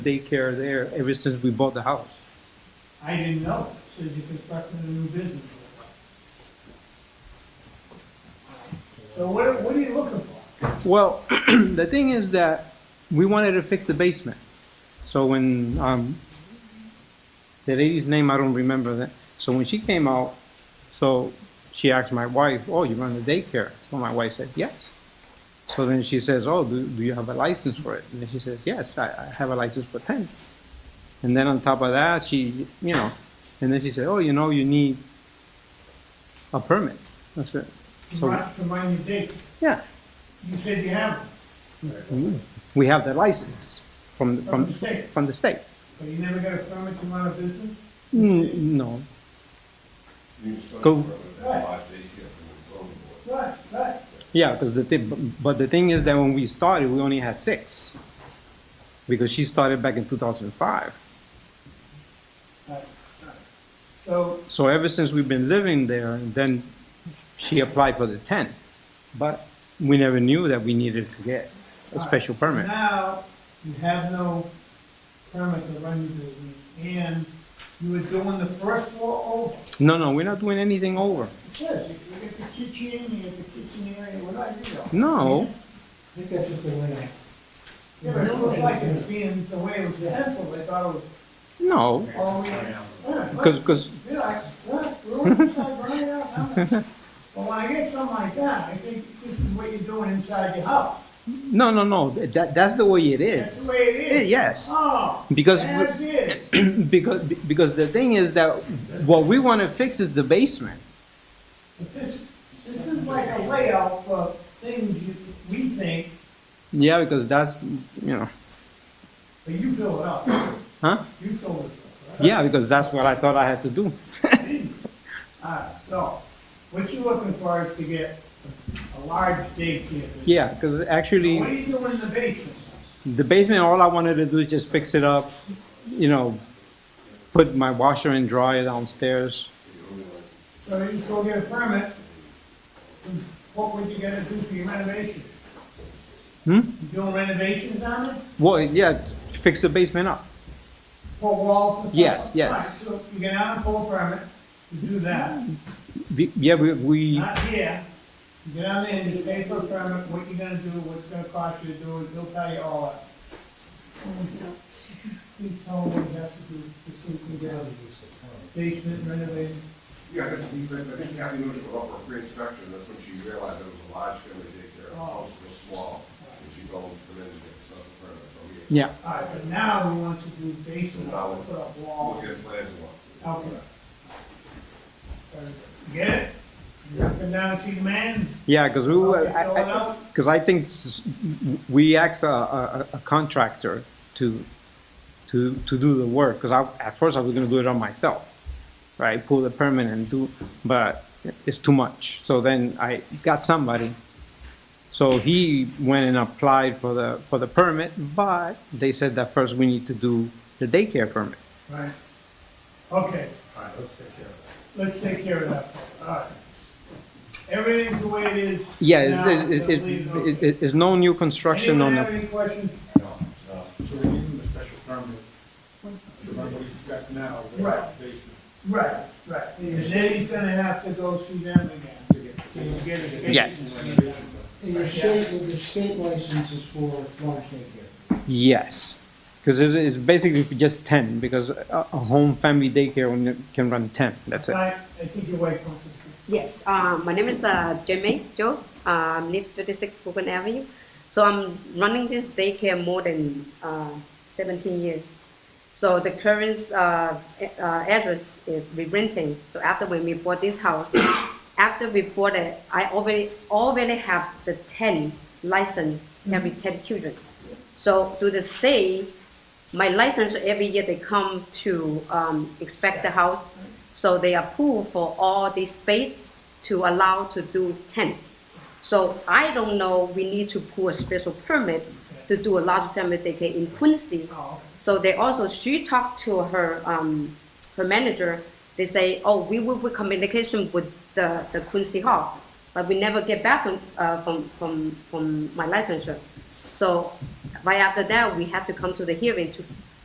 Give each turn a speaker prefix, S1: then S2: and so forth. S1: daycare there ever since we bought the house.
S2: I didn't know, It says you constructed a new business. So what, what are you looking for?
S1: Well, the thing is that we wanted to fix the basement. So when, um, the lady's name, I don't remember that. So when she came out, so she asked my wife, oh, you run the daycare? So my wife said, yes. So then she says, oh, do, do you have a license for it? And then she says, yes, I, I have a license for ten. And then on top of that, she, you know, and then she said, oh, you know, you need a permit. That's it. So-
S2: Remind, remind me, Dick,
S1: Yeah.
S2: you said you have one
S1: We have the license from,
S2: from
S1: from,
S2: the state,
S1: from the state.
S2: but you never got a permit to run a business?
S1: Mm, No, Go.
S2: Right, right.
S1: yeah, because the thing, but the thing is that when we started, we only had six. Because she started back in two thousand five.
S2: So,
S1: So ever since we've been living there, and then she applied for the ten. But we never knew that we needed to get a special permit.
S2: now, you have no permit to run your business, and you were doing the first floor over.
S1: No, no, we're not doing anything over.
S2: It says, you you get the kitchen, you get the kitchen area, what are you doing?
S1: No,
S3: I think that's just the way.
S2: Yeah, but it looks like it's being, the way it was penciled, they thought it was
S1: no,
S2: all the way.
S1: because, because,
S2: Relax, relax, relax, inside, right out, now. But when I get something like that, I think this is what you're doing inside your house.
S1: no, no, no, that, that's the way it
S2: That's
S1: is.
S2: the way it is.
S1: Yes,
S2: Oh,
S1: because. we-
S2: that's it.
S1: because because the thing is that what we want to fix is the basement.
S2: But this, this is like a layout for things you, we think,
S1: Yeah, because that's you know,
S2: but you fill it up.
S1: huh?
S2: You fill it up, right?
S1: Yeah, because that's what I thought I had to do.
S2: All right, so, what you're looking for is to get a large daycare. business.
S1: Yeah, because
S2: What are
S1: actually
S2: you doing in the basement?
S1: the basement, all I wanted to do is just fix it up, you know, put my washer and dryer downstairs.
S2: So you just go get a permit, and what would you gotta do for your renovation?
S1: Hmm?
S2: You doing renovations on it?
S1: Well, yeah, fix the basement up.
S2: For walls and stuff?
S1: Yes, yes.
S2: Right, So you get out and pull a permit to do that,
S1: Be- Yeah, we, we
S2: not here. You get out there and you pay for a permit, what you gonna do, what's gonna cost you to do it, they'll tell you all that. Please tell them what you have to do, just so we can get a basement renovated.
S4: Yeah, I think, I think Kathy was up for pre-inspection, that's when she realized it was a large family daycare, the house was small, and she told them to get stuff for her, so we
S1: yeah
S2: All right, but now we want to do basement, uh, put up walls.
S4: look at plans and what.
S2: Okay. Get it? Come down and see the man?
S1: yeah because we
S2: Help
S1: were
S2: you fill it out?
S1: because I, think s- we asked a, a, a contractor to to to do the work because I at first I was going to do it on myself, right? Pull the permit and do, but it's too much. So then I got somebody. So he went and applied for the for the permit, but they said that first we need to do the daycare permit.
S2: Right. Okay,
S4: All right, let's take care of
S2: let's take care of that. All right. Everything's the way it is.
S1: Yeah, it's,
S2: now,
S1: it, it,
S2: so
S1: it,
S2: leave
S1: it,
S2: okay.
S1: it's no new construction on
S2: Anyone have
S1: the
S2: any questions?
S5: No, no. So we give them a special permit to run what we've got now
S2: Right.
S5: without basement.
S2: Right, right. And then he's gonna have to go see them again.
S5: to get
S2: So you get it.
S1: Yeah.
S5: renovation done.
S3: And your state, well, the state license is for large daycare.
S1: Yes, because it's, it's basically just ten. Because a, a home family daycare only can run ten. That's it.
S2: I, I think your wife wants to.
S6: Yes, uh, my name is uh, Jamie Joe. Uh, I live 36 Brooklyn Avenue. So I'm running this daycare more than uh, 17 years. So the current uh, a- uh, address is we renting. So after when we bought this house, after we bought it, I already already have the 10 license every 10 children. So to the state, my license every year they come to um, inspect the house. So they approve for all this space to allow to do 10. So I don't know, we need to pull a special permit to do a large family daycare in Quincy.
S2: Oh,
S6: So they also, she talked to her, um, her manager, they say, oh, we will be communication with the, the Quincy Hall, but we never get back from, uh, from, from, from my licensure. So right after that, we have to come to the hearing to